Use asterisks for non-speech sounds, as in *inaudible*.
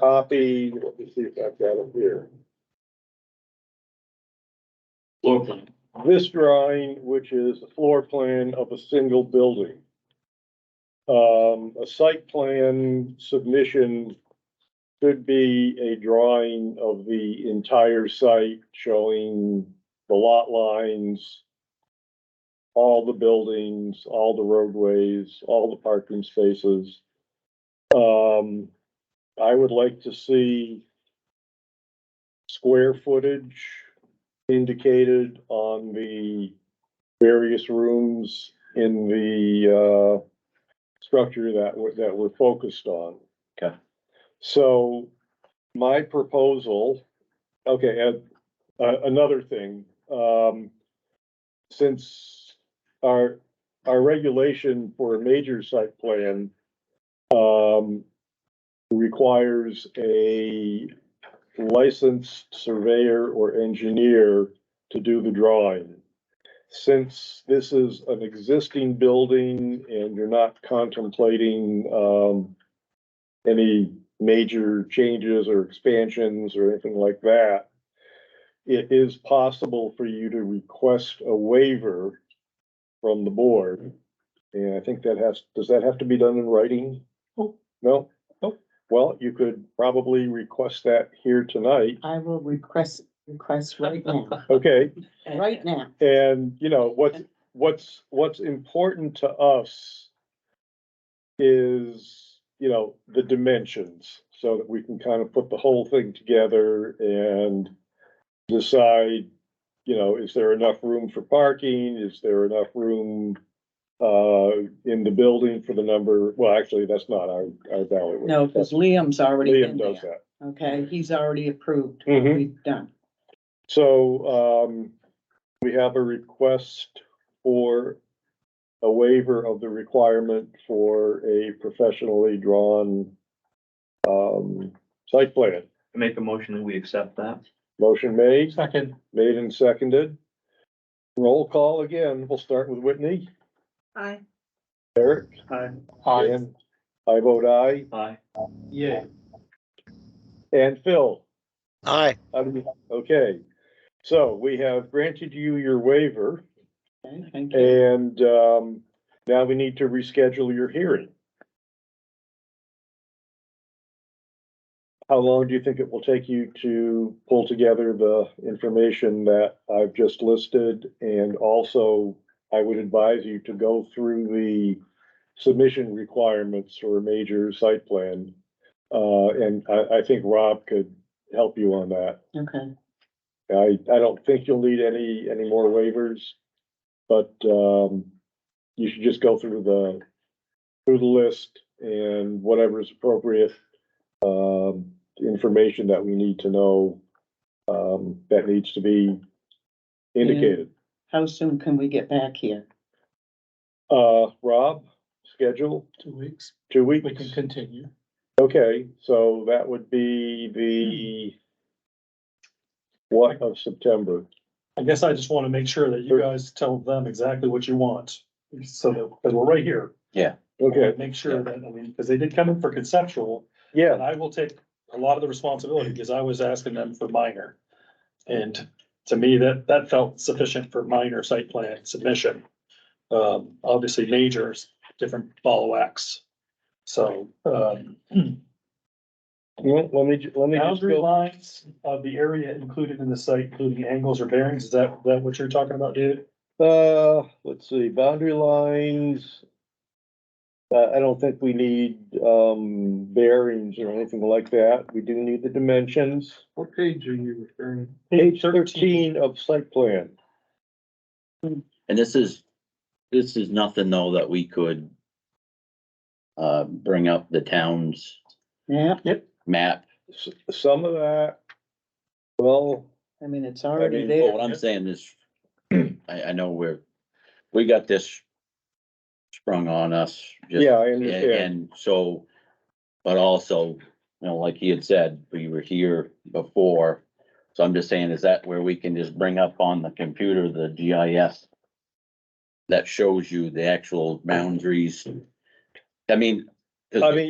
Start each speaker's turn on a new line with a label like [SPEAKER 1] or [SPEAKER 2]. [SPEAKER 1] copied, let me see if I've got it here.
[SPEAKER 2] floor plan.
[SPEAKER 1] This drawing, which is the floor plan of a single building. Um, a site plan submission could be a drawing of the entire site showing the lot lines, all the buildings, all the roadways, all the parking spaces. Um, I would like to see square footage indicated on the various rooms in the, uh, structure that we're, that we're focused on.
[SPEAKER 2] Okay.
[SPEAKER 1] So my proposal, okay, and, uh, another thing, um, since our, our regulation for a major site plan, um, requires a licensed surveyor or engineer to do the drawing. Since this is an existing building and you're not contemplating, um, any major changes or expansions or anything like that, it is possible for you to request a waiver from the board. And I think that has, does that have to be done in writing?
[SPEAKER 3] Nope.
[SPEAKER 1] No? Oh,
[SPEAKER 3] Nope.
[SPEAKER 1] Well, you could probably request that here tonight.
[SPEAKER 3] I will request, request right now,
[SPEAKER 1] Okay,
[SPEAKER 3] right now.
[SPEAKER 1] and you know, what's, what's, what's important to us is, you know, the dimensions, so that we can kind of put the whole thing together and decide, you know, is there enough room for parking? Is there enough room uh, in the building for the number? Well, actually, that's not our, our value.
[SPEAKER 3] No, because Liam's already
[SPEAKER 1] Liam
[SPEAKER 3] in
[SPEAKER 1] does
[SPEAKER 3] there,
[SPEAKER 1] that.
[SPEAKER 3] okay? He's already approved. what
[SPEAKER 1] Mhm.
[SPEAKER 3] We've done.
[SPEAKER 1] So, um, we have a request for a waiver of the requirement for a professionally drawn, um, site plan.
[SPEAKER 2] I Make a motion and we accept that.
[SPEAKER 1] Motion made,
[SPEAKER 2] Second.
[SPEAKER 1] made and seconded. Roll call again. We'll start with Whitney.
[SPEAKER 3] Aye.
[SPEAKER 1] Eric?
[SPEAKER 2] Aye.
[SPEAKER 1] Dan? I vote aye.
[SPEAKER 2] Aye.
[SPEAKER 1] Yeah. And Phil?
[SPEAKER 4] Aye,
[SPEAKER 1] Um, Okay, so we have granted you your waiver.
[SPEAKER 3] Okay, thank
[SPEAKER 1] Eh.
[SPEAKER 3] you.
[SPEAKER 1] And um, now we need to reschedule your hearing. How long do you think it will take you to pull together the information that I've just listed? And also, I would advise you to go through the submission requirements for a major site plan. Uh, and I, I think Rob could help you on that.
[SPEAKER 3] Okay,
[SPEAKER 1] I, I don't think you'll need any, any more waivers, but, um, you should just go through the, through the list and whatever is appropriate, um, information that we need to know, um, that needs to be indicated.
[SPEAKER 3] how soon can we get back here?
[SPEAKER 1] Uh, Rob, schedule,
[SPEAKER 5] Two weeks,
[SPEAKER 1] two weeks?
[SPEAKER 5] we can continue.
[SPEAKER 1] Okay, so that would be the what of September?
[SPEAKER 5] I guess I just want to make sure that you guys tell them exactly what you want, so that, because we're right here.
[SPEAKER 1] Okay,
[SPEAKER 5] Make sure that, I mean, because they did come in for conceptual,
[SPEAKER 1] yeah,
[SPEAKER 5] and I will take a lot of the responsibility, because I was asking them for minor. And to me, that, that felt sufficient for minor site plan submission. Um, obviously majors, different ball wax. So, um,
[SPEAKER 1] well, let me, ju- let me just
[SPEAKER 5] Boundary
[SPEAKER 1] go.
[SPEAKER 5] lines of the area included in the site, including angles or bearings, is that, that what you're talking about, David?
[SPEAKER 1] Uh, let's see, boundary lines. Uh, I don't think we need, um, bearings or anything like that. We do need the dimensions.
[SPEAKER 2] What page are you referring?
[SPEAKER 1] Page thirteen of site plan.
[SPEAKER 6] And this is, this is nothing though that we could uh, bring up the town's
[SPEAKER 3] Yeah,
[SPEAKER 6] map.
[SPEAKER 1] S- Some of that, well,
[SPEAKER 3] I mean, it's
[SPEAKER 1] I
[SPEAKER 3] already
[SPEAKER 1] mean,
[SPEAKER 6] But what
[SPEAKER 3] there.
[SPEAKER 6] I'm saying
[SPEAKER 1] *clears throat*
[SPEAKER 6] is, I, I know we're, we got this sprung on us. just-
[SPEAKER 1] yeah, I
[SPEAKER 6] And
[SPEAKER 1] understand.
[SPEAKER 6] and so, but also, you know, like he had said, we were here before. So I'm just saying, is that where we can just bring up on the computer, the GIS? That shows you the actual boundaries. I mean. 'cause
[SPEAKER 1] I mean,